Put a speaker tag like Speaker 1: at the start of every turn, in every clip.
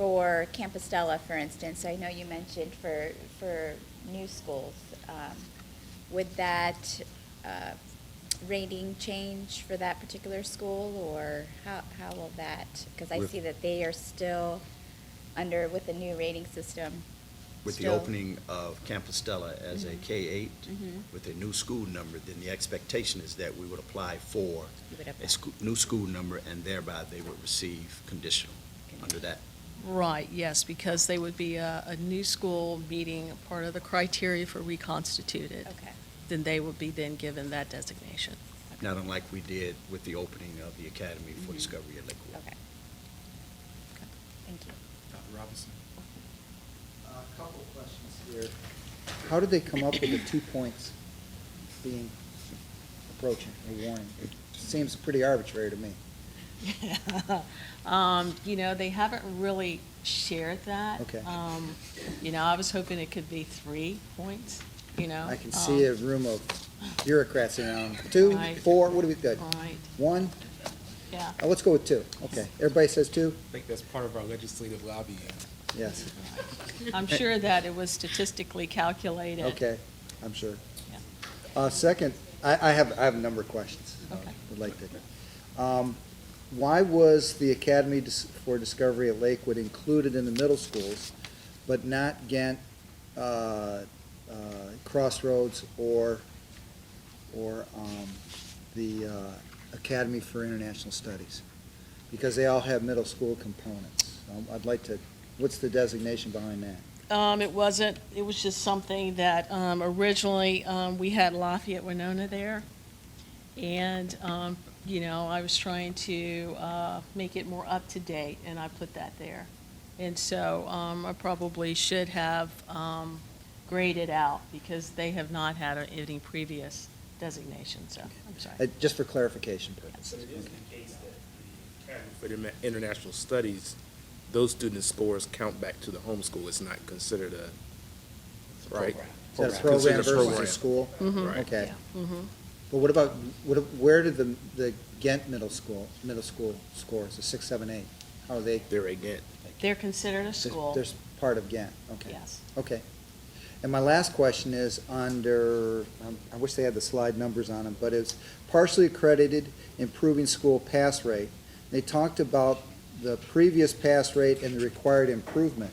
Speaker 1: for Campostella, for instance, I know you mentioned for, for new schools, um, would that uh, rating change for that particular school, or how, how will that? Because I
Speaker 2: With-
Speaker 1: see that they are still under, with the new rating system.
Speaker 2: With the
Speaker 1: still-
Speaker 2: opening of Campostella as a
Speaker 1: Mhm.
Speaker 2: K-8,
Speaker 1: Mhm.
Speaker 2: with a new school number, then the expectation is that we would apply for
Speaker 1: You would apply.
Speaker 2: a scho- new school number, and thereby they would receive conditional under that.
Speaker 3: Right, yes, because they would be a, a new school meeting, part of the criteria for reconstituted.
Speaker 1: Okay.
Speaker 3: Then they would be then given that designation.
Speaker 2: Not unlike we did with the opening of the Academy for
Speaker 1: Mhm.
Speaker 2: Discovery at Lakewood.
Speaker 1: Okay. Thank you.
Speaker 4: Dr. Robinson?
Speaker 5: Uh, A couple of questions here. How did they come up with the two points being approaching or warning? It seems pretty arbitrary to me.
Speaker 3: Um, you know, they haven't really shared that.
Speaker 5: Okay.
Speaker 3: Um, you know, I was hoping it could be three points, you know?
Speaker 5: I can see a
Speaker 3: um,
Speaker 5: room of bureaucrats around. Two,
Speaker 3: Right.
Speaker 5: four, what do we got?
Speaker 3: Right,
Speaker 5: One?
Speaker 3: yeah.
Speaker 5: Uh, Let's go with two. Okay. Everybody says two?
Speaker 4: I think that's part of our legislative lobbying.
Speaker 5: Yes.
Speaker 3: I'm sure that it was statistically calculated.
Speaker 5: Okay, I'm sure.
Speaker 3: Yeah.
Speaker 5: Uh, second, I, I have, I have a number of questions. uh,
Speaker 3: Okay.
Speaker 5: Would like to. Um, why was the Academy Dis- for Discovery at Lakewood included in the middle schools, but not Ghent, uh, uh, Crossroads or, or, um, the, uh, Academy for International Studies? Because they all have middle school components. Um, I'd like to, what's the designation behind that?
Speaker 3: Um, it wasn't, it was just something that, um, originally, um, we had Lafayette Winona there. And, um, you know, I was trying to, uh, make it more up to date and I put that there. And so, um, I probably should have, um, graded out because they have not had any previous designation, so, I'm sorry.
Speaker 5: Uh, just for clarification purposes.
Speaker 6: So it is the case that the Academy for Interna- International Studies, those students' scores count back to the homeschool. It's not considered a, right?
Speaker 5: Is that a
Speaker 6: It's
Speaker 5: program
Speaker 6: considered
Speaker 5: versus a
Speaker 6: program.
Speaker 5: school?
Speaker 6: Right.
Speaker 5: Okay.
Speaker 3: Mm-hmm.
Speaker 5: But what about, what, where did the, the Ghent middle school, middle school scores, the six, seven, eight? How are they?
Speaker 6: They're again,
Speaker 3: They're considered a school.
Speaker 5: They're part of Ghent, okay.
Speaker 3: Yes.
Speaker 5: Okay. And my last question is under, um, I wish they had the slide numbers on them, but it's partially accredited improving school pass rate. They talked about the previous pass rate and the required improvement.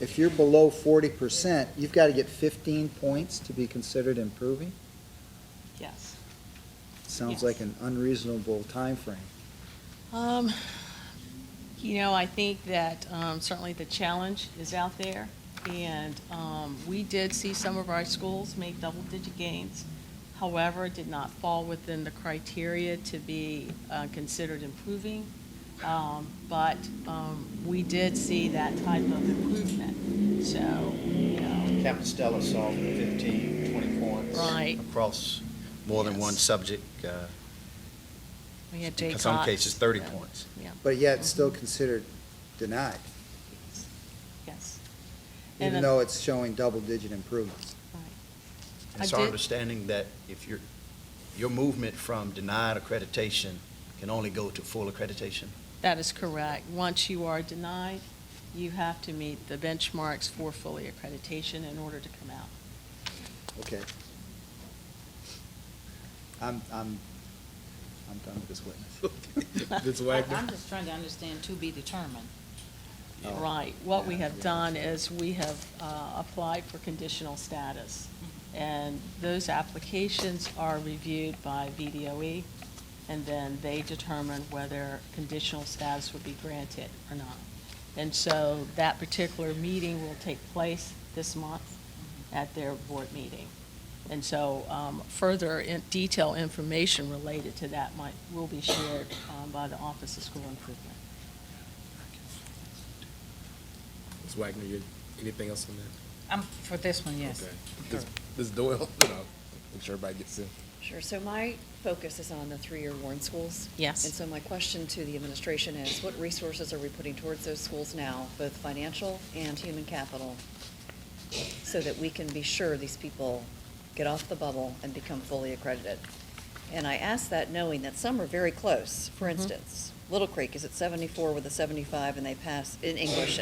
Speaker 5: If you're below forty percent, you've got to get fifteen points to be considered improving?
Speaker 3: Yes.
Speaker 5: Sounds
Speaker 3: Yes.
Speaker 5: like an unreasonable time frame.
Speaker 3: Um, you know, I think that, um, certainly the challenge is out there, and, um, we did see some of our schools make double-digit gains. However, it did not fall within the criteria to be, uh, considered improving. Um, but, um, we did see that type of improvement, so, you know,
Speaker 2: Campostella saw 15, 20 points.
Speaker 3: Right.
Speaker 2: Across more than one
Speaker 3: Yes.
Speaker 2: subject, uh,
Speaker 3: we had Jay
Speaker 2: in some
Speaker 3: Cox,
Speaker 2: cases, 30
Speaker 3: yeah,
Speaker 2: points.
Speaker 3: Yeah,
Speaker 5: But yet, it's still considered denied,
Speaker 3: yes. And
Speaker 5: even
Speaker 3: a-
Speaker 5: though it's showing double-digit improvements.
Speaker 3: right. I
Speaker 2: It's our
Speaker 3: did-
Speaker 2: understanding that if your, your movement from denied accreditation can only go to full accreditation?
Speaker 3: That is correct. Once you are denied, you have to meet the benchmarks for fully accreditation in order to come out.
Speaker 5: Okay. I'm, I'm, I'm done with this witness.
Speaker 4: Ms.
Speaker 7: I-
Speaker 4: Wagner?
Speaker 7: I'm just trying to understand to be determined.
Speaker 5: Oh.
Speaker 3: Right. What we
Speaker 5: Yeah,
Speaker 3: have
Speaker 5: yeah.
Speaker 3: done is we have uh, applied for conditional status.
Speaker 5: Mm-hmm.
Speaker 3: And those applications are reviewed by VDOE, E, and then they determine whether conditional status would be granted or not. And so that particular meeting will take place this month
Speaker 5: Mm-hmm.
Speaker 3: at their board meeting. And so um, further in- detailed information related to that might, will be shared um, by the Office of School Improvement.
Speaker 4: Ms. Wagner, you, anything else on that?
Speaker 7: I'm, for this one, yes.
Speaker 4: Okay. Ms. Ms. Doyle, you know, make sure everybody gets in.
Speaker 8: Sure, so my focus is on the three-year Warren schools.
Speaker 3: Yes.
Speaker 8: And so my question to the administration is, what resources are we putting towards those schools now, both financial and human capital, so that we can be sure these people get off the bubble and become fully accredited? And I ask that knowing that some are very close. For instance, Little Creek is at seventy-four with a seventy-five, and they pass in English,